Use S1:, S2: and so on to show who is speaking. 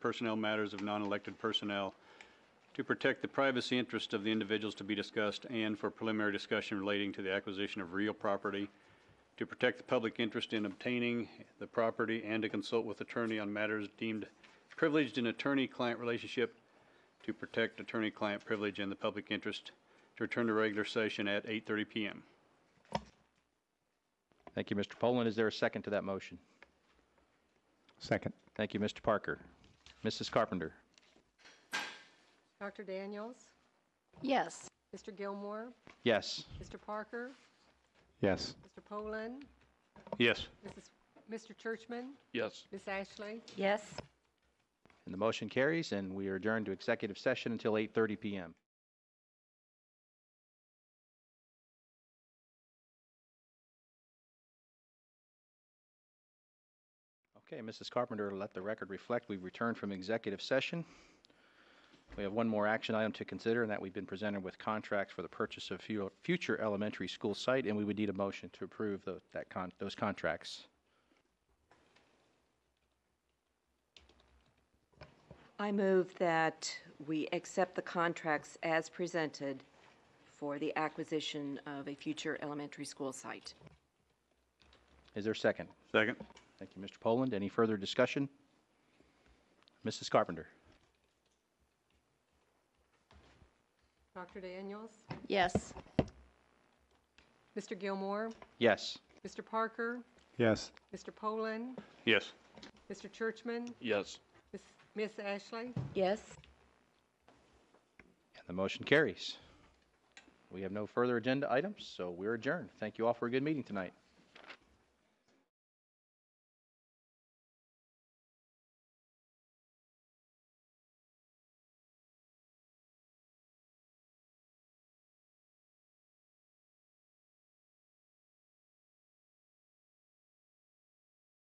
S1: personnel matters of non-elected personnel to protect the privacy interest of the individuals to be discussed and for preliminary discussion relating to the acquisition of real property, to protect the public interest in obtaining the property and to consult with attorney on matters deemed privileged in attorney-client relationship, to protect attorney-client privilege and the public interest, to return to regular session at 8:30 PM.
S2: Thank you, Mr. Poland. Is there a second to that motion?
S3: Second.
S2: Thank you, Mr. Parker. Mrs. Carpenter?
S4: Dr. Daniels,
S5: Yes.
S4: Mr. Gilmore,
S2: Yes.
S4: Mr. Parker,
S3: Yes.
S4: Mr. Poland,
S1: Yes.
S4: Mrs., Mr. Churchman,
S1: Yes.
S4: Miss Ashley.
S5: Yes.
S2: And the motion carries, and we are adjourned to executive session until 8:30 PM. Okay, Mrs. Carpenter, let the record reflect, we've returned from executive session. We have one more action item to consider, and that we've been presented with contracts for the purchase of fu- future elementary school site, and we would need a motion to approve tho- that con- those contracts.
S6: I move that we accept the contracts as presented for the acquisition of a future elementary school site.
S2: Is there a second?
S1: Second?
S2: Thank you, Mr. Poland. Any further discussion? Mrs. Carpenter?
S4: Dr. Daniels,
S5: Yes.
S4: Mr. Gilmore,
S2: Yes.
S4: Mr. Parker,
S3: Yes.
S4: Mr. Poland,
S1: Yes.
S4: Mr. Churchman,
S1: Yes.
S4: Miss Miss Ashley.
S6: Yes?
S2: And the motion carries. We have no further agenda items, so we're adjourned. Thank you all for a good meeting tonight.